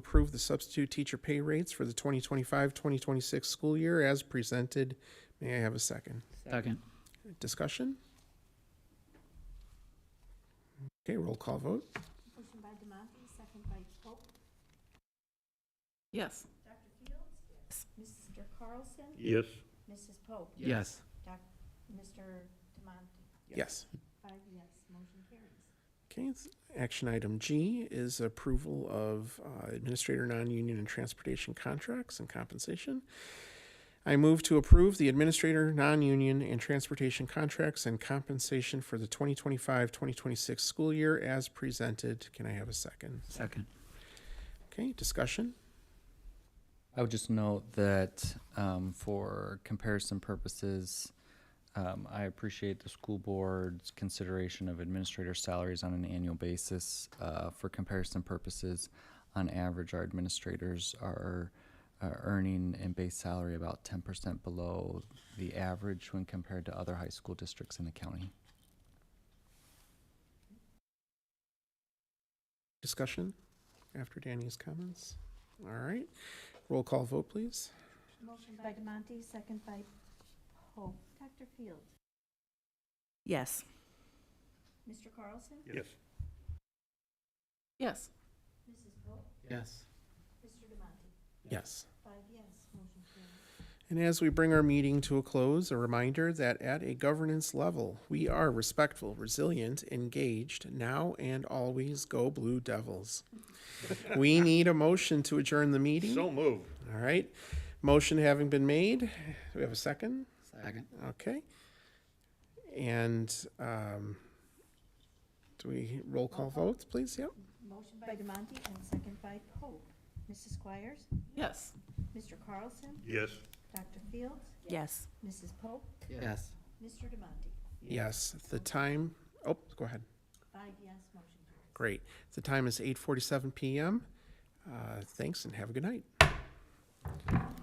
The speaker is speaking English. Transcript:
approve the substitute teacher pay rates for the 2025-2026 school year as presented. May I have a second? Second. Discussion? Okay, roll call vote. Motion by Demonte, second by Pope. Yes. Dr. Fields? Mr. Carlson? Yes. Mrs. Pope? Yes. Doc, Mr. Demonte? Yes. Five yes, motion carries. Okay, s- action item G is approval of uh, administrator non-union and transportation contracts and compensation. I move to approve the administrator non-union and transportation contracts and compensation for the 2025-2026 school year as presented. Can I have a second? Second. Okay, discussion? I would just note that um, for comparison purposes, um, I appreciate the school board's consideration of administrator salaries on an annual basis. Uh, for comparison purposes, on average, our administrators are uh, earning in base salary about 10% below the average when compared to other high school districts in the county. Discussion after Danny's comments? All right, roll call vote, please. Motion by Demonte, second by Pope. Dr. Fields? Yes. Mr. Carlson? Yes. Yes. Mrs. Pope? Yes. Mr. Demonte? Yes. Five yes, motion carries. And as we bring our meeting to a close, a reminder that at a governance level, we are respectful, resilient, engaged, now and always go Blue Devils. we need a motion to adjourn the meeting. So moved. All right. Motion having been made, do we have a second? Second. Okay. And um, do we roll call votes, please? Yep. Motion by Demonte and second by Pope. Mrs. Squires? Yes. Mr. Carlson? Yes. Dr. Fields? Yes. Mrs. Pope? Yes. Mr. Demonte? Yes. The time. Oh, go ahead. Five yes, motion carries. Great. The time is 8:47 p.m. Uh, thanks and have a good night.